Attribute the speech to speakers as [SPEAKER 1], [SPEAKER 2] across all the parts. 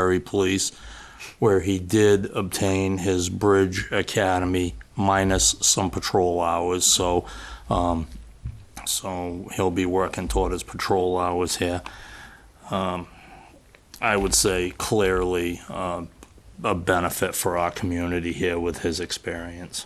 [SPEAKER 1] Ferry Police, where he did obtain his Bridge Academy minus some patrol hours, so, um, so he'll be working toward his patrol hours here. Um, I would say clearly, um, a benefit for our community here with his experience.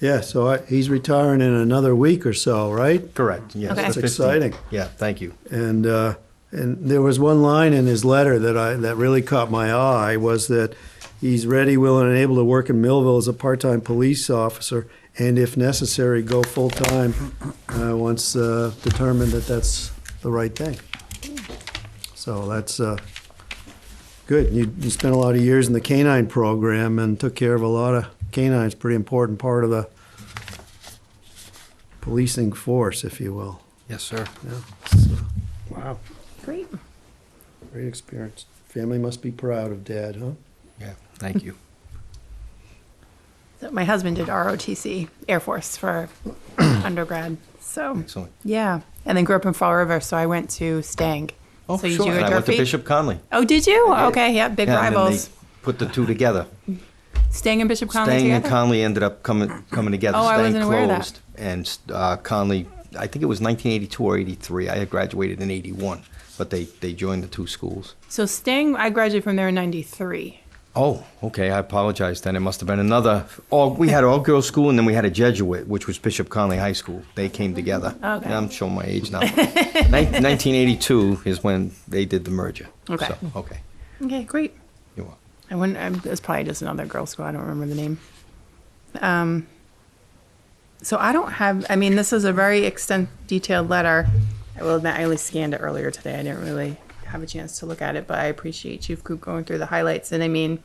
[SPEAKER 2] Yeah, so I- he's retiring in another week or so, right?
[SPEAKER 3] Correct, yes.
[SPEAKER 4] Okay.
[SPEAKER 3] the
[SPEAKER 4] That's
[SPEAKER 3] 15th.
[SPEAKER 2] exciting.
[SPEAKER 3] Yeah, thank you.
[SPEAKER 2] And uh, and there was one line in his letter that I that really caught my eye was that he's ready, willing, and able to work in Millville as a part-time police officer, and if necessary, go full-time uh, once uh, determined that that's the right thing. So that's uh, good. You, you spent a lot of years in the canine program and took care of a lot of canines. Pretty important part of the policing force, if you will.
[SPEAKER 3] Yes, sir.
[SPEAKER 2] Wow.
[SPEAKER 4] Great.
[SPEAKER 2] Great experience. Family must be proud of dad, huh?
[SPEAKER 3] Yeah, thank you.
[SPEAKER 4] So my husband did ROTC, Air Force, for undergrad. So,
[SPEAKER 3] Excellent.
[SPEAKER 4] yeah. And then grew up in Fall River, so I went to Stang.
[SPEAKER 3] Oh,
[SPEAKER 4] so you
[SPEAKER 3] sure,
[SPEAKER 4] do a
[SPEAKER 3] and I went to
[SPEAKER 4] Durfee?
[SPEAKER 3] Bishop Conley.
[SPEAKER 4] Oh, did you? Okay, yeah, big
[SPEAKER 3] Yeah, and then they
[SPEAKER 4] rivals.
[SPEAKER 3] Put the two together.
[SPEAKER 4] Stang and Bishop Conley
[SPEAKER 3] Stang and
[SPEAKER 4] together?
[SPEAKER 3] Conley ended up coming, coming together.
[SPEAKER 4] Oh, I
[SPEAKER 3] Stang
[SPEAKER 4] wasn't aware of that.
[SPEAKER 3] closed, And uh, Conley, I think it was 1982 or 83. I had graduated in 81, but they, they joined the two schools.
[SPEAKER 4] so Stang, I graduated from there in 93.
[SPEAKER 3] Oh, okay. I apologize. Then it must have been another. All we had all girls school, and then we had a Jesuit, which was Bishop Conley High School. They came together.
[SPEAKER 4] Okay.
[SPEAKER 3] And I'm showing my age now. Nin- 1982 is when they did the merger.
[SPEAKER 4] Okay.
[SPEAKER 3] So, okay.
[SPEAKER 4] Okay, great.
[SPEAKER 3] You are.
[SPEAKER 4] I wouldn't, I'm, it's probably just another girl school. I don't remember the name. Um, so I don't have, I mean, this is a very extent detailed letter. I will admit, I only scanned it earlier today. I didn't really have a chance to look at it, but I appreciate you going through the highlights. And I mean,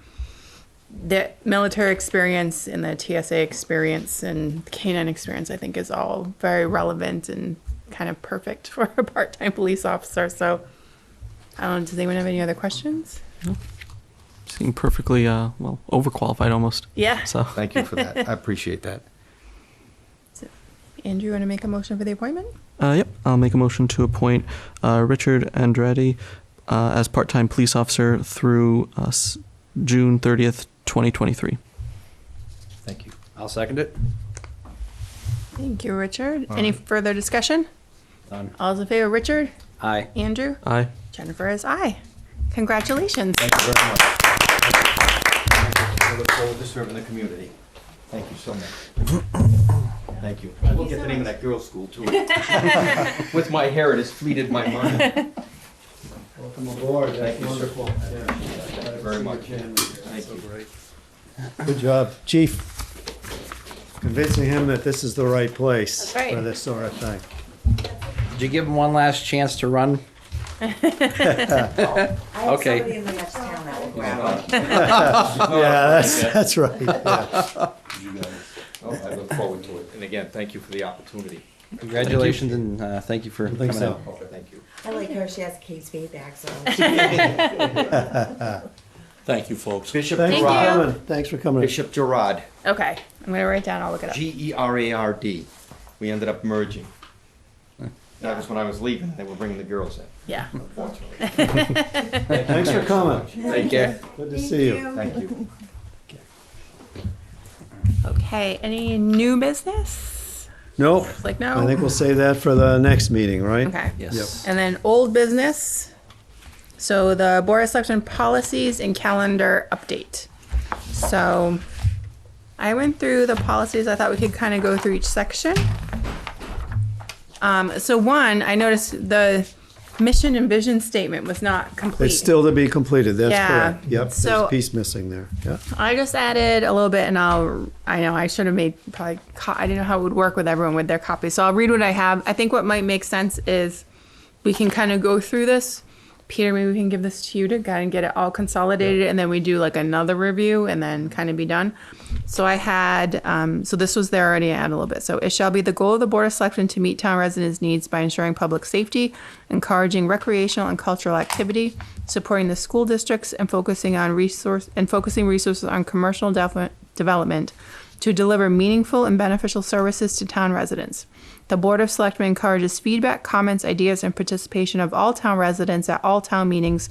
[SPEAKER 4] the military experience and the TSA experience and the canine experience, I think, is all very relevant and kind of perfect for a part time police officer. So I don't know, does anyone have any other questions?
[SPEAKER 5] seem perfectly uh well overqualified almost.
[SPEAKER 4] Yeah.
[SPEAKER 5] So
[SPEAKER 3] Thank you for that. I appreciate that.
[SPEAKER 4] Andrew, you want to make a motion for the appointment?
[SPEAKER 5] uh yep, I'll make a motion to appoint uh Richard Andretti uh as part-time police officer through uh, s- June 30th, 2023.
[SPEAKER 3] Thank you.
[SPEAKER 6] I'll second it.
[SPEAKER 4] Thank you, Richard. Any further discussion? None. All's in favor, Richard?
[SPEAKER 6] Aye.
[SPEAKER 4] Andrew?
[SPEAKER 5] Aye.
[SPEAKER 4] Jennifer is aye. Congratulations.
[SPEAKER 3] Thank you very much. I look forward to serving the community. Thank you so much. Thank you. I will get the name of that girls' school too. With my hair, it has fleeted my mind.
[SPEAKER 2] Welcome aboard. That's
[SPEAKER 3] Thank you, sir.
[SPEAKER 2] wonderful. Thank
[SPEAKER 3] you very much. Thank you.
[SPEAKER 2] Good job, chief. Convincing him that this is the right place
[SPEAKER 4] That's right.
[SPEAKER 2] for this sort of thing.
[SPEAKER 6] Did you give him one last chance to run?
[SPEAKER 7] I have
[SPEAKER 6] Okay.
[SPEAKER 7] somebody in the next town that will grab
[SPEAKER 2] Yeah, that's, that's right. yeah.
[SPEAKER 3] Oh, I look forward to it. And again, thank you for the opportunity.
[SPEAKER 6] Congratulations and uh, thank you for coming
[SPEAKER 2] think so.
[SPEAKER 6] out.
[SPEAKER 3] Thank you.
[SPEAKER 7] I like her, she has Kate's feedback, so.
[SPEAKER 1] Thank you, folks.
[SPEAKER 3] Bishop
[SPEAKER 2] Thanks for
[SPEAKER 4] Thank you.
[SPEAKER 3] Gerard.
[SPEAKER 2] coming. Thanks for coming.
[SPEAKER 3] Bishop Gerard,
[SPEAKER 4] Okay, I'm going to write down, I'll look it up.
[SPEAKER 3] G E R A R D. We ended up merging. That was when I was leaving. They were bringing the girls in,
[SPEAKER 4] Yeah.
[SPEAKER 3] unfortunately.
[SPEAKER 2] Thanks for coming.
[SPEAKER 3] Take care.
[SPEAKER 2] Good to see you.
[SPEAKER 3] Thank you.
[SPEAKER 4] Okay, any new business?
[SPEAKER 2] Nope.
[SPEAKER 4] Like,
[SPEAKER 2] I think
[SPEAKER 4] no?
[SPEAKER 2] we'll save that for the next meeting, right?
[SPEAKER 4] Okay.
[SPEAKER 6] Yes.
[SPEAKER 4] And then old business. So the Board of Selectmen policies and calendar update. So I went through the policies. I thought we could kind of go through each section. Um, so one, I noticed the mission and vision statement was not complete.
[SPEAKER 2] It's still to be completed, that's
[SPEAKER 4] Yeah.
[SPEAKER 2] correct. Yep, there's
[SPEAKER 4] So-
[SPEAKER 2] a piece missing there, yeah.
[SPEAKER 4] I just added a little bit, and I'll. I know I should have made probably. Co- I didn't know how it would work with everyone with their copy, so I'll read what I have. I think what might make sense is we can kind of go through this. Peter, maybe we can give this to you to kind of get it all consolidated, and then we do like another review, and then kind of be done. So I had. Um, so this was there already. I added a little bit. So it shall be the goal of the board of selection to meet town residents' needs by ensuring public safety, encouraging recreational and cultural activity, supporting the school districts and focusing on resource and focusing resources on commercial dev- development to deliver meaningful and beneficial services to town residents. The Board of Selectmen encourages feedback, comments, ideas, and participation of all town residents at all town meetings